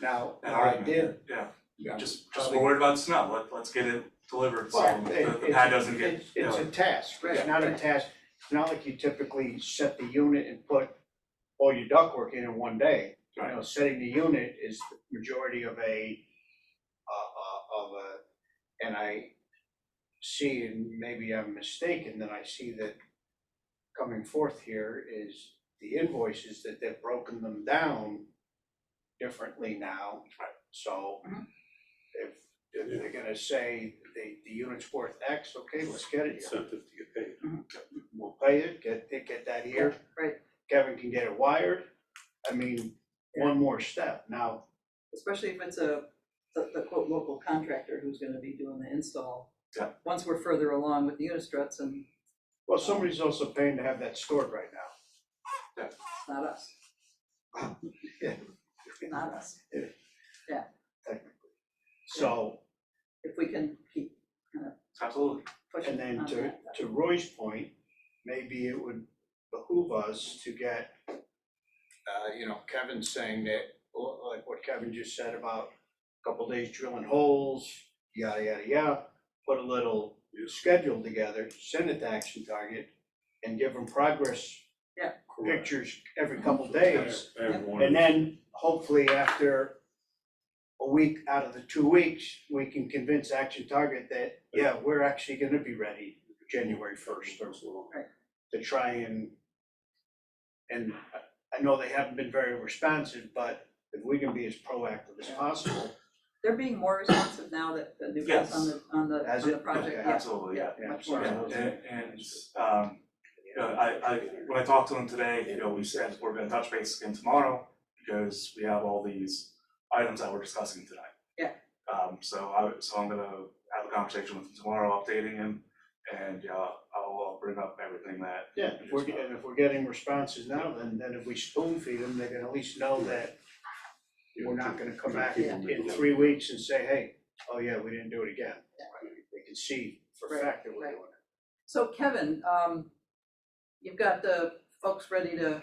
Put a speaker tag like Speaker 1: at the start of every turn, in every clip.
Speaker 1: Now,
Speaker 2: And
Speaker 1: now I
Speaker 2: I-
Speaker 1: did.
Speaker 2: yeah.
Speaker 1: Yeah.
Speaker 2: Just, just
Speaker 1: Probably-
Speaker 2: we're worried about snow, let, let's get it delivered, so
Speaker 1: Well, it-
Speaker 2: the, the
Speaker 1: it's-
Speaker 2: pad doesn't get,
Speaker 1: it's-
Speaker 2: you know.
Speaker 1: It's a task, it's
Speaker 2: Yeah.
Speaker 1: not a task, it's not like you typically set the unit and put all your ductwork in in one day. You know, setting the unit is the majority of a, uh, uh, of a, and I see, and maybe I'm mistaken, that I see that coming forth here is the invoices that they've broken them down differently now.
Speaker 2: Right. Mm-hmm.
Speaker 1: So
Speaker 3: Mhm.
Speaker 1: if, if they're gonna say the, the unit's worth X, okay, let's get it here.
Speaker 4: incentive to get paid.
Speaker 1: We'll pay it, get, get that here.
Speaker 3: Right.
Speaker 1: Kevin can get it wired. I mean, one more step. Now,
Speaker 3: especially if it's a, the, the quote, local contractor who's gonna be doing the install.
Speaker 2: Yeah.
Speaker 3: Once we're further along with the unit struts and
Speaker 1: Well, somebody's also paying to have that stored right now.
Speaker 3: it's not us, not us.
Speaker 1: So,
Speaker 3: If we can keep
Speaker 2: Absolutely,
Speaker 3: pushing
Speaker 1: and then
Speaker 3: on
Speaker 1: to,
Speaker 3: that.
Speaker 1: to Roy's point, maybe it would behoove us to get, uh, you know, Kevin saying that, l- like what Kevin just said about a couple days drilling holes, yada, yada, yada, put a little schedule together, send it to Action Target, and give them progress
Speaker 4: Correct.
Speaker 1: pictures every couple days.
Speaker 4: Everyone.
Speaker 1: And then hopefully after a week out of the two weeks, we can convince Action Target that, yeah, we're actually gonna be ready January first or so.
Speaker 3: Right.
Speaker 1: To try and, and I- I know they haven't been very responsive, but if we can be as proactive as possible,
Speaker 3: They're being more responsive now that the new guys on the, on the,
Speaker 1: Has
Speaker 3: on the
Speaker 1: it?
Speaker 3: project,
Speaker 1: Okay.
Speaker 3: yeah,
Speaker 2: absolutely, yeah.
Speaker 3: yeah,
Speaker 1: yeah,
Speaker 3: much more.
Speaker 1: sorry.
Speaker 2: Yeah, and, and, um, you know, I, I, when I talked to him today, you know, we said we're gonna touch base again tomorrow because we have all these items that we're discussing tonight.
Speaker 3: Yeah.
Speaker 2: Um, so I, so I'm gonna have a conversation with him tomorrow, updating him, and, yeah, I'll, I'll bring up everything that,
Speaker 1: yeah, if we're, get- and if we're getting responses now, then, then if we spoon feed them, they can at least know that we're not gonna come back in, in three weeks and say, hey, oh yeah, we didn't do it again. They can see for a fact that we're doing it.
Speaker 3: So Kevin, um, you've got the folks ready to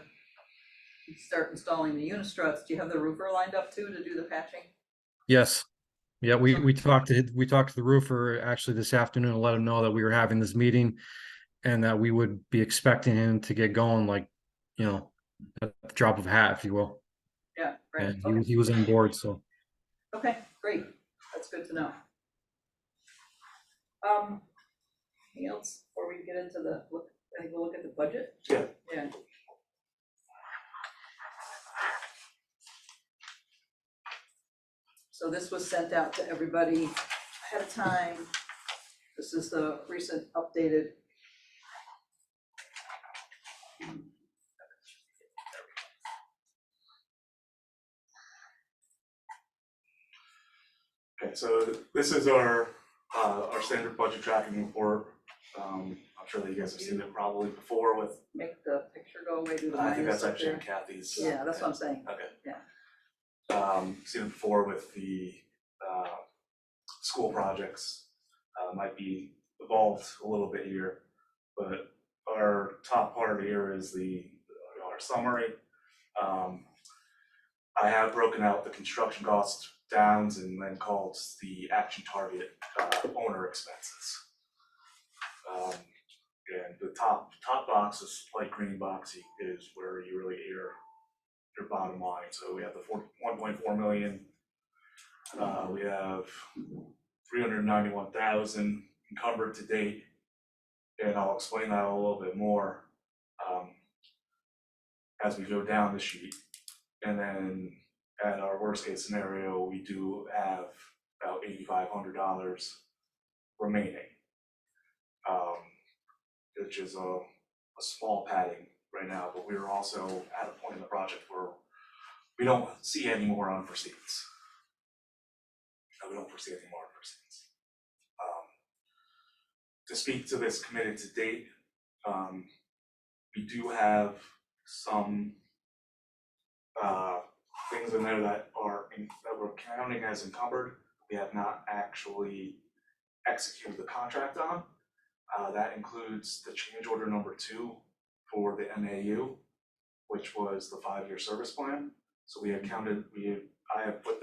Speaker 3: start installing the unit struts, do you have the roofer lined up too to do the patching?
Speaker 5: Yes. Yeah, we,
Speaker 3: Okay.
Speaker 5: we talked to, we talked to the roofer actually this afternoon, and let him know that we were having this meeting. And that we would be expecting him to get going like, you know, at the drop of a hat, if you will.
Speaker 3: Yeah, right,
Speaker 5: And he, was-
Speaker 3: okay,
Speaker 5: he was on board, so.
Speaker 3: okay, great, that's good to know. Um, anything else before we get into the, look, I think we'll look at the budget?
Speaker 2: Yeah.
Speaker 3: Yeah. So this was sent out to everybody ahead of time. This is the recent updated.
Speaker 2: okay, so this is our, uh, our standard budget tracking report. Um, I'm sure that you guys have seen it probably before with,
Speaker 3: Make the picture go away, do the
Speaker 2: I think
Speaker 3: minus
Speaker 2: that's
Speaker 3: up
Speaker 2: actually
Speaker 3: there.
Speaker 2: Kathy's.
Speaker 3: Yeah, that's what I'm saying.
Speaker 2: um, seen it before with the, uh, school projects, uh, might be evolved a little bit here. But our top part here is the, our summary. Um, I have broken out the construction costs downs and then called the action target, uh, owner expenses. Um, and the top, top box, this light green box is where you really hear your bottom line, so we have the four, one point four million. Uh, we have three hundred ninety-one thousand encumbered to date. And I'll explain that a little bit more, um, as we go down the sheet. And then at our worst case scenario, we do have about eighty-five hundred dollars remaining. Um, which is um, a, a small padding right now, but we are also at a point in the project where we don't see any more unforeseens. Uh, we don't foresee any more unforeseens. Um, to speak to this committed to date, um, we do have some uh, things in there that are, in- that we're counting as encumbered, we have not actually executed the contract on. Uh, that includes the change order number two for the MAU, which was the five-year service plan. So we had counted, we, had- I have put